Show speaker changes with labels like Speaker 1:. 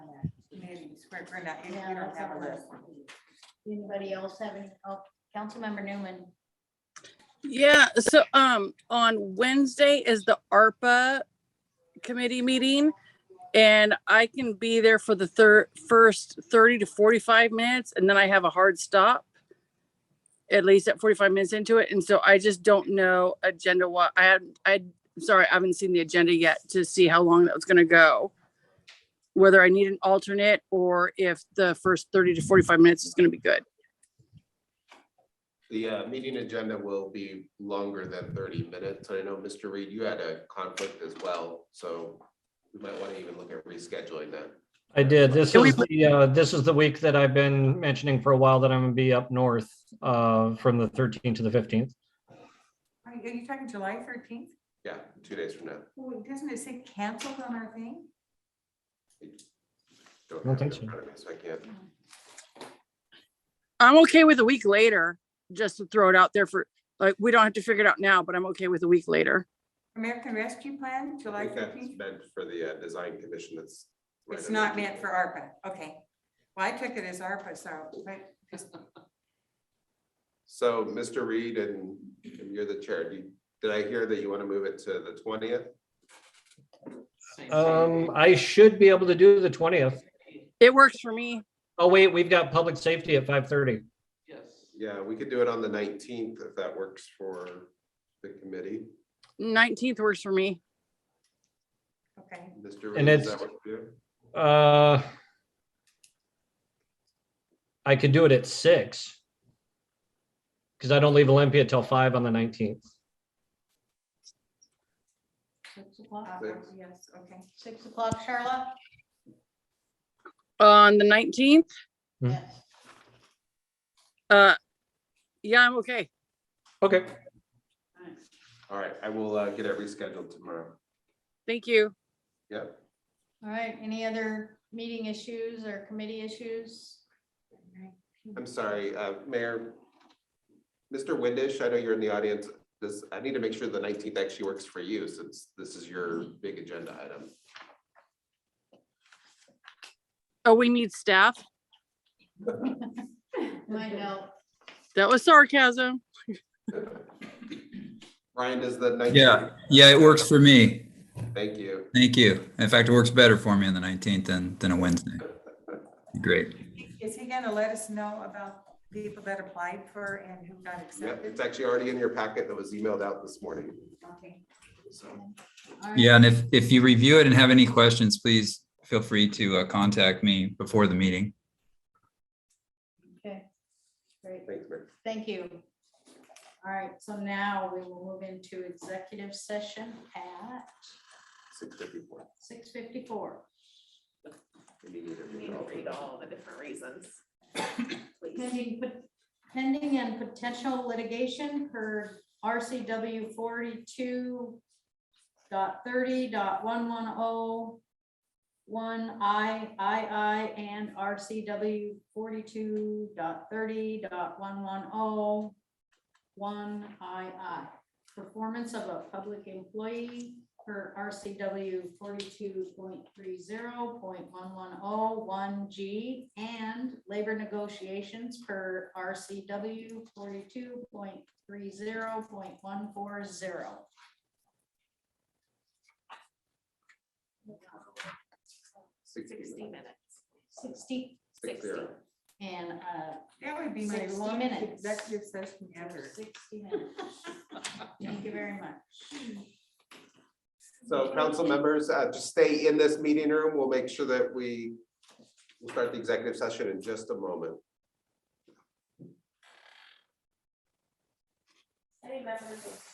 Speaker 1: We're, we're not, we
Speaker 2: Yeah,
Speaker 1: don't
Speaker 2: that's
Speaker 1: have a
Speaker 2: not
Speaker 1: list.
Speaker 2: Anybody else have any, oh, Councilmember Newman,
Speaker 3: Yeah, so um on Wednesday is the ARPA committee meeting. And I can be there for the third first thirty to forty-five minutes and then I have a hard stop. At least at forty-five minutes into it. And so I just don't know agenda what I had I I'm sorry, I haven't seen the agenda yet to see how long that was gonna go. Whether I need an alternate or if the first thirty to forty-five minutes is gonna be good.
Speaker 4: The uh, meeting agenda will be longer than thirty minutes. I know, Mr. Reed, you had a conflict as well, so we might want to even look at rescheduling that.
Speaker 5: I did. This
Speaker 3: Can we
Speaker 5: is the, uh, this is the week that I've been mentioning for a while that I'm gonna be up north, uh, from the thirteenth to the fifteenth.
Speaker 1: Are you, are you talking July thirteenth?
Speaker 4: Yeah, two days from now.
Speaker 1: Doesn't it say canceled on our thing?
Speaker 5: I don't
Speaker 4: have it
Speaker 5: think
Speaker 4: in
Speaker 5: so.
Speaker 4: front of me, So I can't.
Speaker 3: I'm okay with a week later, just to throw it out there for, like, we don't have to figure it out now, but I'm okay with a week later.
Speaker 1: American Rescue Plan,
Speaker 4: I
Speaker 1: July
Speaker 4: think that's
Speaker 1: thirteenth?
Speaker 4: meant for the uh, design commission that's. right
Speaker 1: It's
Speaker 4: under
Speaker 1: not
Speaker 4: the-
Speaker 1: meant for ARPA, okay. Well, I took it as ARPA, so, but
Speaker 4: So, Mr. Reed, and and you're the chair, do you- did I hear that you want to move it to the twentieth?
Speaker 5: Um, I should be able to do the twentieth.
Speaker 3: It works for me.
Speaker 5: Oh, wait, we've got public safety at five thirty.
Speaker 4: Yeah, we could do it on the nineteenth if that works for the committee.
Speaker 3: Nineteenth works for me.
Speaker 1: okay.
Speaker 4: Mr. Reed,
Speaker 5: And
Speaker 4: does
Speaker 5: it's-
Speaker 4: that work for you?
Speaker 5: Uh, I could do it at six. Cause I don't leave Olympia till five on the nineteenth.
Speaker 2: six o'clock,
Speaker 1: Uh,
Speaker 4: Thanks.
Speaker 1: Yes, okay.
Speaker 2: six o'clock, Charlotte?
Speaker 3: On the nineteenth,
Speaker 5: Hmm.
Speaker 2: Yes.
Speaker 3: uh, yeah, I'm okay.
Speaker 5: Okay,
Speaker 4: All right, I will uh, get it rescheduled tomorrow.
Speaker 3: Thank you.
Speaker 4: Yep.
Speaker 2: All right, any other meeting issues or committee issues?
Speaker 4: I'm sorry, uh, Mayor. Mr. Windish, I know you're in the audience. This, I need to make sure the nineteenth actually works for you since this is your big agenda item.
Speaker 3: Oh, we need staff.
Speaker 2: My note,
Speaker 3: That was sarcasm.
Speaker 4: Ryan, does the nineteenth?
Speaker 6: Yeah, yeah, it works for me.
Speaker 4: Thank you.
Speaker 6: Thank you. In fact, it works better for me on the 19th than, than a Wednesday. Great.
Speaker 1: Is he gonna let us know about people that applied for and who got
Speaker 4: Yep,
Speaker 1: accepted?
Speaker 4: it's actually already in your packet that was emailed out this morning.
Speaker 1: Okay.
Speaker 4: So,
Speaker 2: all right.
Speaker 6: Yeah, and if, if you review it and have any questions, please feel free to uh, contact me before the meeting.
Speaker 2: Okay, great,
Speaker 4: thanks, Mayor.
Speaker 2: thank you. All right, so now we will move into executive session at
Speaker 4: Six fifty-four.
Speaker 2: six fifty-four.
Speaker 7: You need to read all the different reasons. Please.
Speaker 2: Pending, pot- pending and potential litigation per RCW forty-two dot thirty dot one one oh one I, I, I, and RCW forty-two dot thirty dot one one oh one I, I. Performance of a public employee per RCW forty-two point three zero point one one oh one G and labor negotiations per RCW forty-two point three zero point one four zero.
Speaker 7: Sixty minutes.
Speaker 2: Sixty
Speaker 4: Six zero.
Speaker 2: and uh,
Speaker 1: That would be my
Speaker 2: 60
Speaker 1: longest
Speaker 2: minutes.
Speaker 1: executive session
Speaker 2: for
Speaker 1: ever.
Speaker 2: sixty minutes. Thank you very much.
Speaker 4: So council members, uh, just stay in this meeting room. We'll make sure that we we'll start the executive session in just a moment.
Speaker 7: Any members of